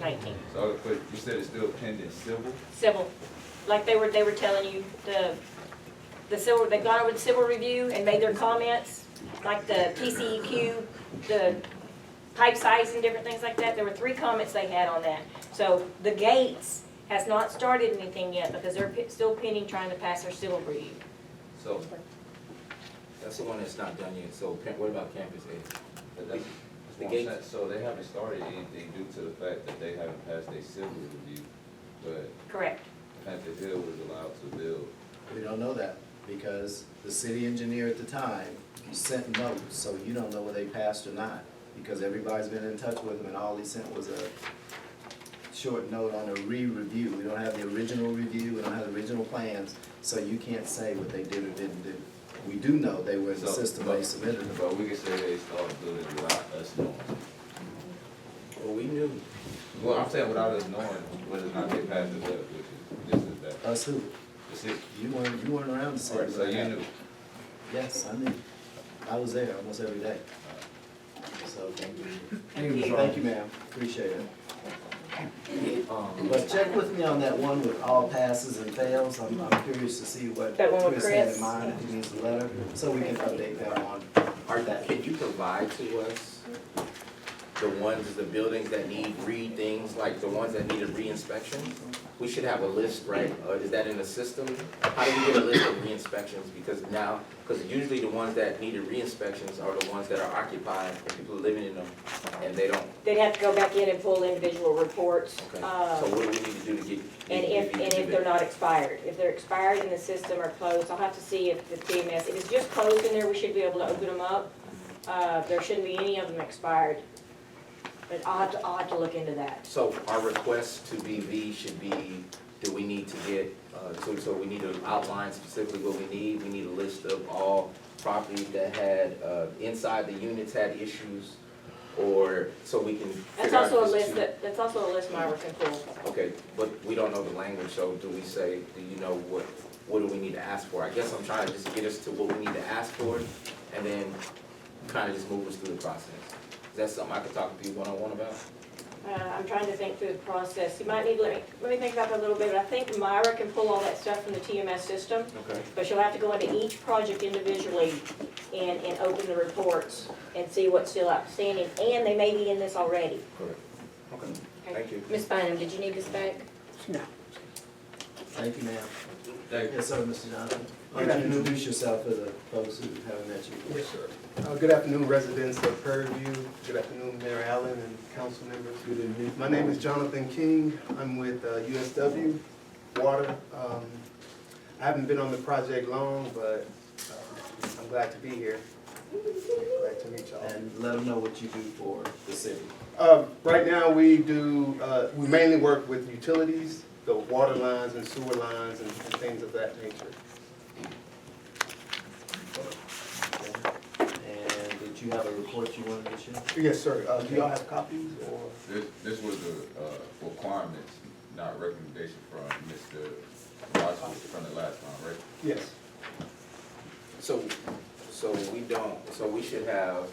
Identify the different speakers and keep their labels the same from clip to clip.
Speaker 1: painting.
Speaker 2: So, but you said it's still pending civil?
Speaker 1: Civil, like they were, they were telling you, the, the civil, they've gone over the civil review and made their comments, like the PCEQ, the pipe size and different things like that. There were three comments they had on that. So the Gates has not started anything yet because they're pe- still pending trying to pass their civil review.
Speaker 2: So,
Speaker 3: That's the one that's not done yet, so pa- what about campus A?
Speaker 2: but that's, that's what I'm saying. so they haven't started anything due to the fact that they haven't passed a civil review, but
Speaker 1: Correct.
Speaker 2: Panther Hill was allowed to build.
Speaker 4: We don't know that, because the city engineer at the time sent notes, so you don't know whether they passed or not. Because everybody's been in touch with them, and all he sent was a short note on a re-review. We don't have the original review, we don't have the original plans, so you can't say what they did or didn't do. We do know they were in the
Speaker 2: So-
Speaker 4: system, they submitted them.
Speaker 2: But we can say they started building without us knowing.
Speaker 3: Well, we knew,
Speaker 2: Well, I'm saying without us knowing whether or not they passed it up, which is, this is that.
Speaker 4: Us who?
Speaker 2: That's it.
Speaker 4: You weren't, you weren't around to
Speaker 2: All
Speaker 4: say
Speaker 2: right, so
Speaker 4: what
Speaker 2: you
Speaker 4: happened.
Speaker 2: knew.
Speaker 4: Yes, I knew. I was there almost every day. So, thank you. Thank you, ma'am. Appreciate it.
Speaker 3: um,
Speaker 4: But check with me on that one with all passes and fails, I'm, I'm curious to see what
Speaker 1: That one with
Speaker 4: Chris had
Speaker 1: Chris?
Speaker 4: in mind, if he needs a letter, so we can update that on.
Speaker 3: are that, could you provide to us the ones, the buildings that need re-things, like the ones that need a re-inspection? We should have a list, right, or is that in the system? How do we get a list of re-inspections, because now, because usually the ones that needed re-inspections are the ones that are occupied, and people are living in them, and they don't,
Speaker 1: They'd have to go back in and pull individual reports.
Speaker 3: okay?
Speaker 1: uh,
Speaker 3: So what do we need to do to get?
Speaker 1: And if, and if they're not expired, if they're expired in the system or closed, I'll have to see if the TMS, if it's just closed in there, we should be able to open them up. Uh, there shouldn't be any of them expired. But I'll have to, I'll have to look into that.
Speaker 3: So our request to BV should be, do we need to get, uh, so, so we need to outline specifically what we need? We need a list of all properties that had, uh, inside the units had issues, or, so we can
Speaker 1: That's
Speaker 3: figure out
Speaker 1: also a
Speaker 3: if it's
Speaker 1: list
Speaker 3: too-
Speaker 1: that, that's also a list Myra can pull.
Speaker 3: Okay, but we don't know the language, so do we say, do you know what, what do we need to ask for? I guess I'm trying to just get us to what we need to ask for, and then kind of just move us through the process. Is that something I could talk to you one-on-one about?
Speaker 1: Uh, I'm trying to think through the process. You might need, let me, let me think about that a little bit, but I think Myra can pull all that stuff from the TMS system.
Speaker 3: Okay.
Speaker 1: But you'll have to go into each project individually and, and open the reports and see what's still outstanding, and they may be in this already.
Speaker 3: Correct. Okay, thank you.
Speaker 1: Ms. Bynum, did you need this back?
Speaker 4: Thank you, ma'am.
Speaker 2: Thank
Speaker 4: Yes, sir, Mr. Johnson. Why don't you introduce yourself to the folks who haven't met you?
Speaker 5: Yes, sir. Uh, Good afternoon, residents of Prairie View. Good afternoon, Mayor Allen and council members. Good evening. My name is Jonathan King. I'm with uh, USW Water. Um, I haven't been on the project long, but uh, I'm glad to be here. Glad to meet y'all.
Speaker 4: And let them know what you do for the city.
Speaker 5: Uh, Right now, we do, uh, we mainly work with utilities, the water lines and sewer lines and and things of that nature.
Speaker 4: And did you have a report you wanted to share?
Speaker 5: Yes, sir. Uh, Do y'all have copies or?
Speaker 2: This, this was a, uh, requirements, not recommendation from Mr. Rogers from the last time, right?
Speaker 5: Yes.
Speaker 3: So, so we don't, so we should have,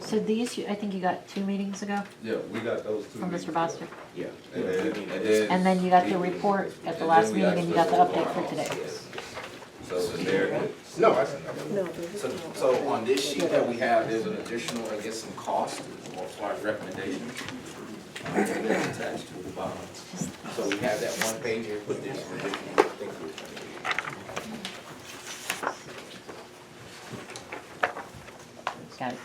Speaker 6: So these, you- I think you got two meetings ago
Speaker 2: Yeah, we got those two.
Speaker 6: from Mr.
Speaker 2: meetings. uh,
Speaker 6: Bostick.
Speaker 3: yeah.
Speaker 2: And then-
Speaker 6: And then you got the report at the last meeting and you got the update for today.
Speaker 2: So the narrative.
Speaker 5: No, I-
Speaker 3: So, so on this sheet that we have, there's an additional, I guess, some cost or far as recommendation. uh, that's attached to the bottom. So we have that one page here, put this additional, thank you.
Speaker 6: Got it.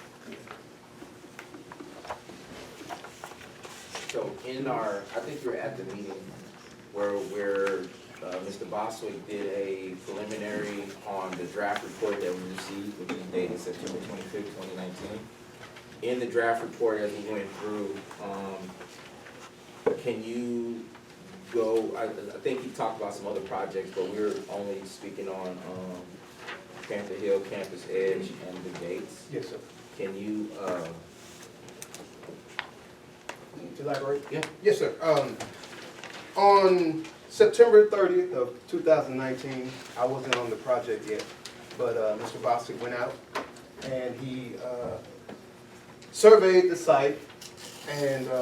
Speaker 3: So in our, I think you were at the meeting where, where uh, Mr. Boswick did a preliminary on the draft report that we received, which is dated September twenty-fifth, twenty nineteen. In the draft report, as we went through, um, can you go, I, I think you talked about some other projects, but we were only speaking on, um, Panther Hill, Campus Edge, and the gates.
Speaker 5: Yes, sir.
Speaker 3: Can you, uh,
Speaker 5: Elaborate?
Speaker 3: Yeah.
Speaker 5: Yes, sir. Um, on September thirtieth of two thousand nineteen, I wasn't on the project yet, but, uh, Mr. Bostic went out and he, uh, surveyed the site And uh,